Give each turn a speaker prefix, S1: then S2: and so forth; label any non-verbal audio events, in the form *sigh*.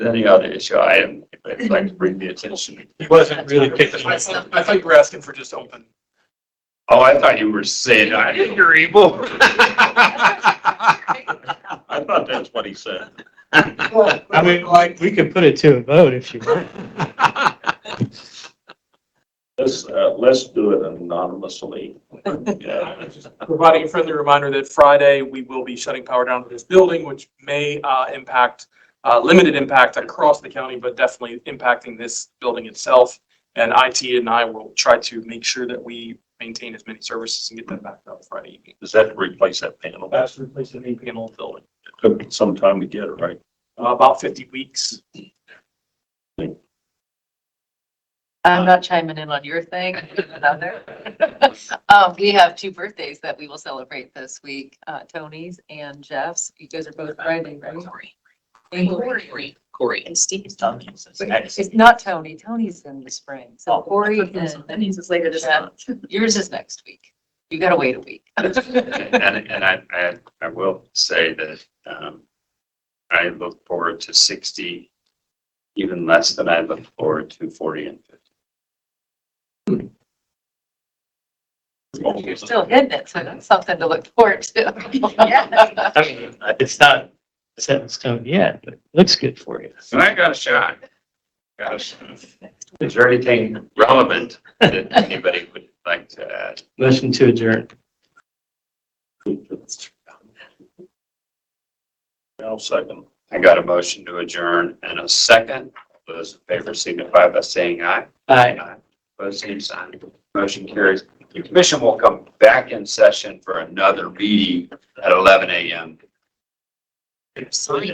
S1: any other issue item, if they'd like to bring the attention.
S2: He wasn't really picking
S3: I
S2: up.
S3: thought I thought you were asking for just open.
S1: Oh, I thought you were saying, I,
S2: You're evil.
S1: I thought that's what he said.
S4: I mean, like, we could put it to a vote if you want.
S1: Let's, uh, let's do it anonymously. Yeah.
S3: Providing a friendly reminder that Friday, we will be shutting power down to this building, which may uh, impact, uh, limited impact across the county, but definitely impacting this building itself. And IT and I will try to make sure that we maintain as many services and get them back up Friday evening.
S1: Is that to replace that panel?
S3: That's replacing the E panel building,
S1: Took some time to get it, right?
S3: Uh, about 50 weeks.
S5: I'm not chiming in on your thing, another. *laughs* Um, we have two birthdays that we will celebrate this week, uh, Tony's and Jeff's. You guys are both Friday, right?
S6: Corey. Corey. And Steve's talking.
S5: It's not Tony. Tony's in the spring. So Corey
S6: Oh, That
S5: and
S6: means it's later this
S5: Jeff,
S6: month.
S5: yours is next week. You gotta wait a week.
S1: And, and I, I, I will say that, um, I look forward to sixty, even less than I look forward to forty and
S5: You're still hitting it, so that's something to look forward
S6: *laughs*
S5: to.
S6: Yeah.
S4: I mean, it's not set in stone yet, but looks good for you.
S1: And I got a shot. Got a shot. Is there anything relevant that anybody would like to add?
S4: Motion to adjourn.
S1: No second. I got a motion to adjourn and a second. Those in favor signify by saying aye.
S4: Aye.
S1: Opposed, same sign. Motion carries. The commission will come back in session for another meeting at eleven AM.